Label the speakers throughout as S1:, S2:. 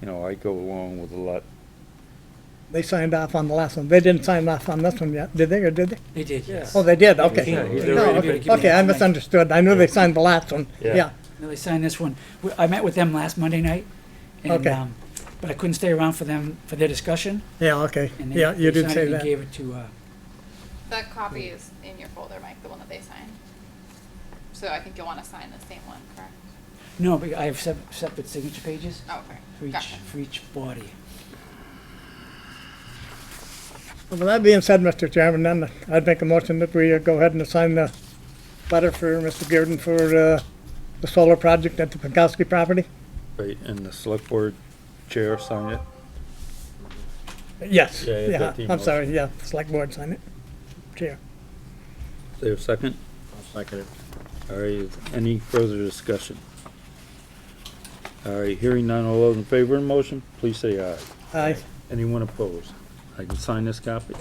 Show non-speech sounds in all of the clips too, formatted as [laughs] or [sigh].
S1: you know, I go along with a lot.
S2: They signed off on the last one. They didn't sign off on this one yet, did they, or did they?
S3: They did, yes.
S2: Oh, they did,
S1: Yeah,
S2: okay.
S1: he's already
S3: No, okay,
S1: been-
S3: give
S2: Okay,
S3: me
S2: I
S3: that tonight.
S2: misunderstood. I knew they signed the last one.
S1: Yeah.
S2: Yeah,
S3: No, they signed this one. We- I met with them last Monday night. and,
S2: Okay.
S3: um, But I couldn't stay around for them, for their discussion.
S2: yeah, okay.
S3: and they-
S2: Yeah, you did
S3: they signed
S2: say
S3: it and
S2: that.
S3: Gave it to, uh,
S4: That copy is in your folder, Mike, the one that they signed. So I think you'll want to sign the same one, correct?
S3: no, but I have sep- separate signature pages
S4: Oh, okay.
S3: for each,
S4: Gotcha.
S3: for each body.
S2: Well, with that being said, Mr. Chairman, then I'd make a motion that we uh, go ahead and assign the letter for Mr. Girden for, uh, the solar project at the Pankowski property.
S1: Right, and the select board chair signed it.
S2: Yes,
S1: Yeah, yeah,
S2: yeah,
S1: that email.
S2: I'm sorry, yeah, select board sign it. Chair.
S1: Is there a second?
S5: Second.
S1: All right, is any further discussion? All right, hearing none, all those in favor of the motion, please say aye.
S2: Aye.
S1: Anyone opposed? I can sign this copy?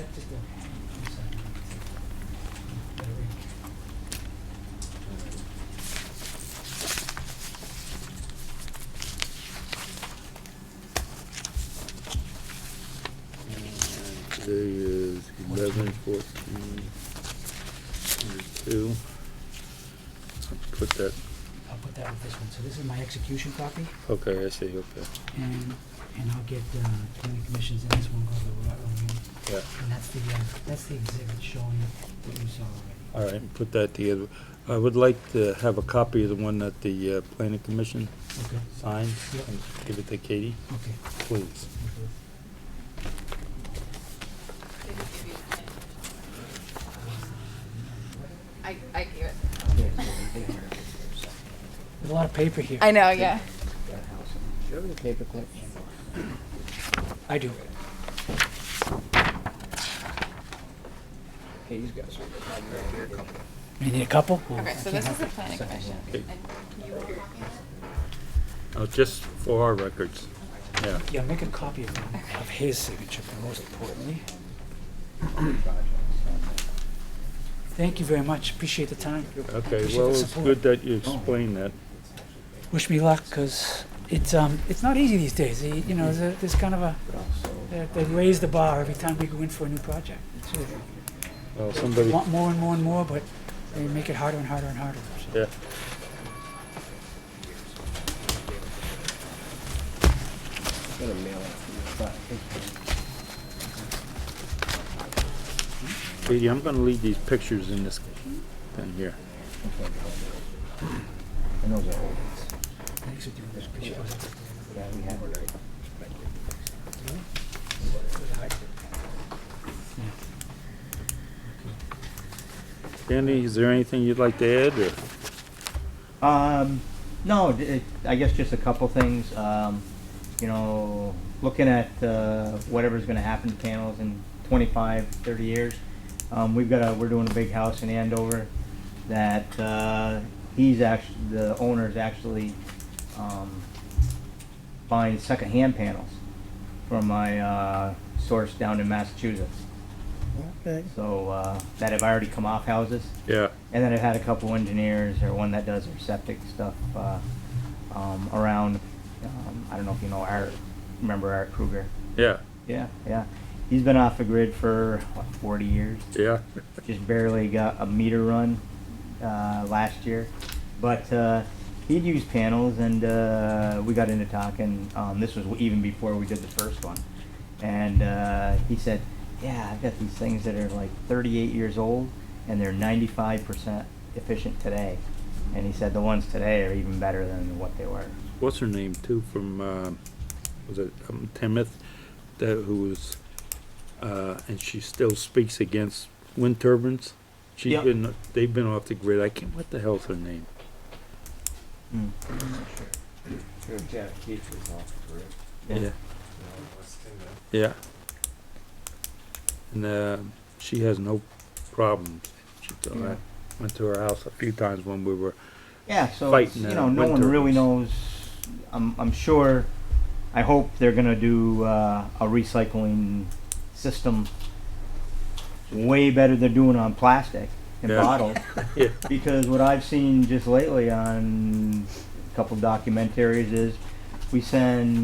S1: Today is eleven fourteen, two. Put that,
S3: I'll put that with this one. So this is my execution copy,
S1: okay, I see, okay,
S3: and, and I'll get, uh, county commissions, and this one goes to the Rutland Union.
S1: yeah.
S3: And that's the, uh, that's the exhibit showing what you saw
S1: All
S3: already.
S1: right, put that together. I would like to have a copy of the one that the uh, planning commission
S3: Okay,
S1: signed.
S3: Yep.
S1: and Give it to Katie,
S3: okay.
S1: please.
S4: They did give you a pen. I, I gave it.
S3: There's a lot of paper here.
S4: I know, yeah.
S5: Do you have any paperclip?
S3: I do.
S5: Hey, he's got some.
S3: You need a couple? Or I
S4: Okay, so
S3: can't
S4: this
S3: have-
S4: is the planning commission.
S1: Okay.
S4: And you were copying it?
S1: Oh, Just for our records, yeah.
S3: Yeah, make a copy of, of his signature, but most importantly. Thank you very much, appreciate the time.
S1: Okay,
S3: Appreciate
S1: well,
S3: the
S1: it's
S3: support.
S1: good that you explained that.
S3: Wish me luck, because it's, um, it's not easy these days, you you know, there's a- there's kind of a, they- they raise the bar every time we go in for a new project. It's sort of-
S1: Well, somebody,
S3: Want more and more and more, but they make it harder and harder and harder, so.
S1: yeah.
S5: Gonna mail it.
S1: Katie, I'm gonna leave these pictures in this thing here.
S5: I know they're old.
S3: Thanks for doing this, appreciate it.
S5: Yeah, we have it.
S1: Danny, is there anything you'd like to add, or?
S6: Um, no, d- it- I guess just a couple things. Um, you know, looking at uh, whatever's going to happen to panels in 25, 30 years. Um, we've got a we're doing a big house in Andover that uh, he's actually the owner's actually um, buying secondhand panels from my uh, source down in Massachusetts.
S2: Okay.
S6: So uh, that have already come off houses.
S1: Yeah,
S6: And then I've had a couple engineers, or one that does their septic stuff, uh, um, around, um, I don't know if you know Art, remember Art Kruger?
S1: yeah,
S6: Yeah, yeah. He's been off the grid for, what, forty years?
S1: yeah,
S6: Just barely got a meter run, uh, last year. But, uh, he'd used panels and, uh, we got into talking, um, this was even before we did the first one. And, uh, he said, yeah, I've got these things that are like thirty-eight years old and they're ninety-five percent efficient today. And he said the ones today are even better than what they were.
S1: what's her name too, from, um, was it, um, Timoth, that, who was, uh, and she still speaks against wind turbines? She's
S6: Yep.
S1: been, they've been off the grid, I can't, what the hell's her name?
S6: Mm.
S5: Sure, Jeff Keith was off the grid.
S6: Yeah.
S1: Yeah. And, uh, she has no problems, she, I
S6: Yeah.
S1: went to her house a few times when we were
S6: Yeah, so
S1: fight
S6: it's,
S1: in
S6: you
S1: the
S6: know, no one
S1: winter.
S6: really knows. I'm, I'm sure. I hope they're gonna do uh, a recycling system way better than doing on plastic and
S1: Yeah.
S6: bottles.
S1: [laughs] Yeah.
S6: Because what I've seen just lately on a couple documentaries is we send